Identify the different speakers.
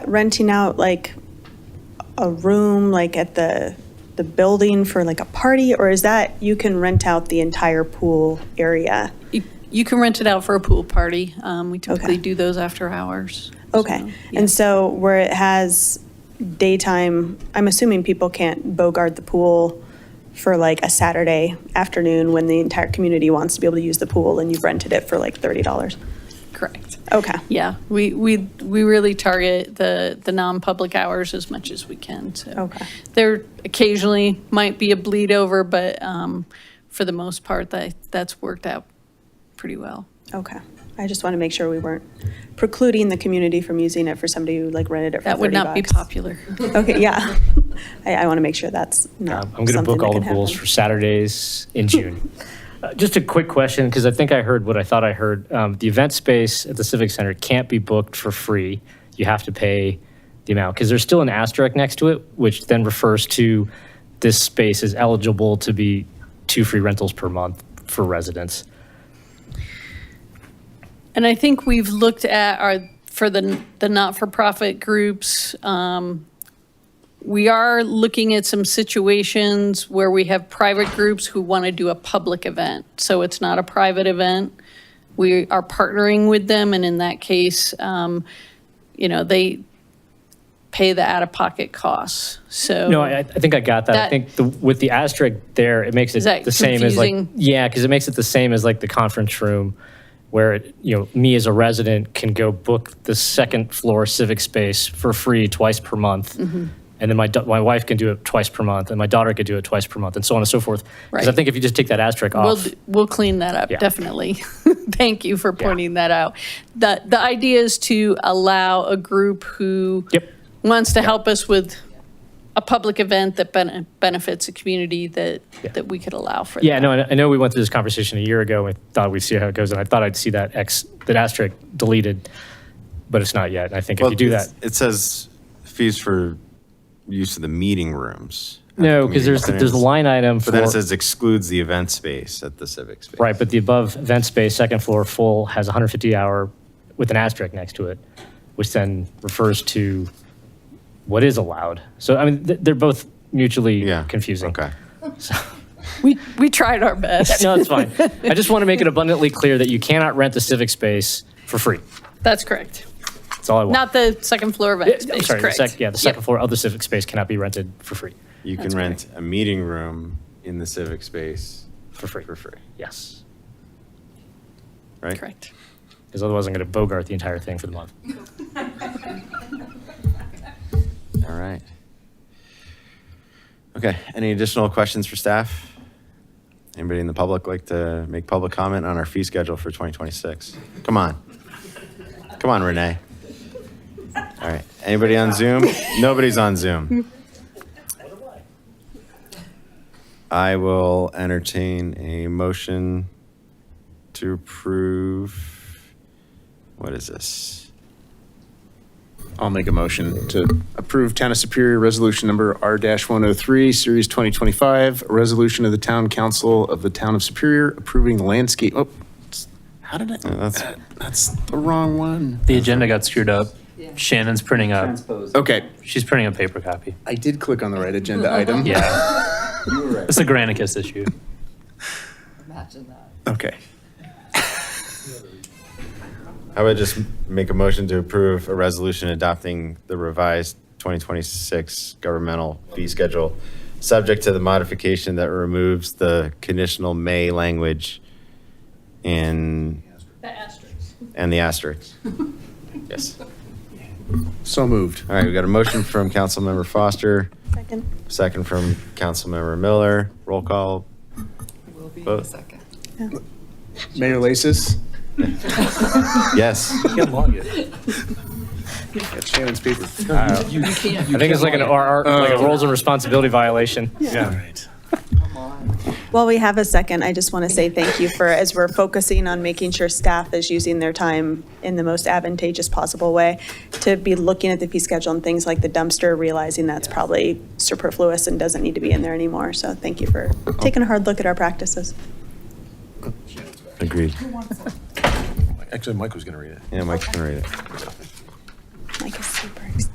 Speaker 1: renting out like a room, like at the, the building for like a party? Or is that, you can rent out the entire pool area?
Speaker 2: You- You can rent it out for a pool party. Um, We typically
Speaker 1: Okay.
Speaker 2: do those after hours. So,
Speaker 1: Okay,
Speaker 2: yeah.
Speaker 1: and so where it has daytime, I'm assuming people can't bogart the pool for like a Saturday afternoon when the entire community wants to be able to use the pool and you've rented it for like thirty dollars.
Speaker 2: Correct.
Speaker 1: Okay,
Speaker 2: Yeah, we, we, we really target the, the non-public hours as much as we can, so.
Speaker 1: Okay.
Speaker 2: There occasionally might be a bleed over, but um, for the most part, that, that's worked out pretty well.
Speaker 1: okay. I just want to make sure we weren't precluding the community from using it for somebody who like rented it for
Speaker 2: That would
Speaker 1: thirty
Speaker 2: not be
Speaker 1: bucks.
Speaker 2: popular.
Speaker 1: Okay, yeah. I, I want to make sure that's not
Speaker 3: Um, I'm going to book all the pools for Saturdays in June. Uh, Just a quick question, because I think I heard what I thought I heard. Um, The event space at the Civic Center can't be booked for free. You have to pay the amount, because there's still an asterisk next to it, which then refers to this space is eligible to be two free rentals per month for residents.
Speaker 2: And I think we've looked at our, for the, the not-for-profit groups, um, we are looking at some situations where we have private groups who want to do a public event. So it's not a private event. We are partnering with them, and in that case, um, you know, they pay the out-of-pocket costs, so.
Speaker 3: No, I, I think I got that. I
Speaker 2: That-
Speaker 3: think the, with the asterisk there, it makes it
Speaker 2: that
Speaker 3: the same as like,
Speaker 2: confusing?
Speaker 3: yeah, because it makes it the same as like the conference room where, it- you know, me as a resident can go book the second floor civic space for free twice per month.
Speaker 2: Mm-hmm.
Speaker 3: And then my, da- my wife can do it twice per month and my daughter could do it twice per month and so on and so forth. Because I
Speaker 2: Right.
Speaker 3: think if you just take that asterisk
Speaker 2: We'll,
Speaker 3: off,
Speaker 2: d- we'll clean that up,
Speaker 3: Yeah.
Speaker 2: definitely. Thank you for pointing that out. The, the idea is to allow a group who
Speaker 3: Yep.
Speaker 2: wants to help us with a public event that bene- benefits a community that, that we could allow for
Speaker 3: yeah,
Speaker 2: that.
Speaker 3: no, I I know we went through this conversation a year ago and thought we'd see how it goes. And I thought I'd see that X, that asterisk deleted, but it's not yet. And I think if you do
Speaker 4: Well,
Speaker 3: that.
Speaker 4: it's- It says fees for use of the meeting rooms. at the
Speaker 3: No, because
Speaker 4: community
Speaker 3: there's, there's a
Speaker 4: centers.
Speaker 3: line item for.
Speaker 4: But then it says excludes the event space at the civic space.
Speaker 3: Right, but the above event space, second floor full, has 150 hour with an asterisk next to it, which then refers to what is allowed. So, I mean, th- they're both mutually
Speaker 4: Yeah.
Speaker 3: confusing.
Speaker 4: Okay.
Speaker 2: We, we tried our best.
Speaker 3: No, it's fine. I just want to make it abundantly clear that you cannot rent the civic space for free.
Speaker 2: That's correct.
Speaker 3: That's all I want.
Speaker 2: Not the second floor
Speaker 3: Yeah,
Speaker 2: event
Speaker 3: I'm
Speaker 2: space,
Speaker 3: sorry, the sec-
Speaker 2: correct?
Speaker 3: Yeah, the second floor of the civic space cannot be rented for free.
Speaker 4: You can rent a meeting room in the civic space.
Speaker 3: For free.
Speaker 4: For free,
Speaker 3: Yes.
Speaker 4: right?
Speaker 2: Correct.
Speaker 3: Because otherwise, I'm going to bogart the entire thing for the month.
Speaker 4: All right. Okay, any additional questions for staff? Anybody in the public like to make public comment on our fee schedule for 2026? Come on. Come on, Renee. All right, anybody on Zoom? Nobody's on Zoom. I will entertain a motion to approve, what is this?
Speaker 5: I'll make a motion to approve Town of Superior Resolution Number R-103, Series 2025, a resolution of the Town Council of the Town of Superior approving landscape, oh, how did I,
Speaker 4: that's-
Speaker 5: Uh, that's the wrong one.
Speaker 6: The agenda got screwed up. Shannon's printing up.
Speaker 5: Okay,
Speaker 6: She's printing a paper copy.
Speaker 5: I did click on the right agenda item.
Speaker 6: Yeah. It's a Granicus issue.
Speaker 5: Okay.
Speaker 4: I would just make a motion to approve a resolution adopting the revised 2026 governmental fee schedule, subject to the modification that removes the conditional may language in,
Speaker 2: The asterisks.
Speaker 4: and the asterisk. Yes.
Speaker 5: So moved.
Speaker 4: All right, we got a motion from Councilmember Foster,
Speaker 1: Second.
Speaker 4: second from Councilmember Miller. Roll call.
Speaker 7: Will be in
Speaker 4: Vote.
Speaker 7: a second.
Speaker 5: Mayor Lasis?
Speaker 4: Yes.
Speaker 5: Got Shannon's paper.
Speaker 3: I think it's like an RR, like a roles and responsibility violation.
Speaker 1: While we have a second, I just want to say thank you for, as we're focusing on making sure staff is using their time in the most advantageous possible way, to be looking at the fee schedule and things like the dumpster, realizing that's probably superfluous and doesn't need to be in there anymore. So thank you for taking a hard look at our practices.
Speaker 4: Agreed.
Speaker 5: Actually, Mike was going to read it.
Speaker 4: Yeah, Mike's gonna read it.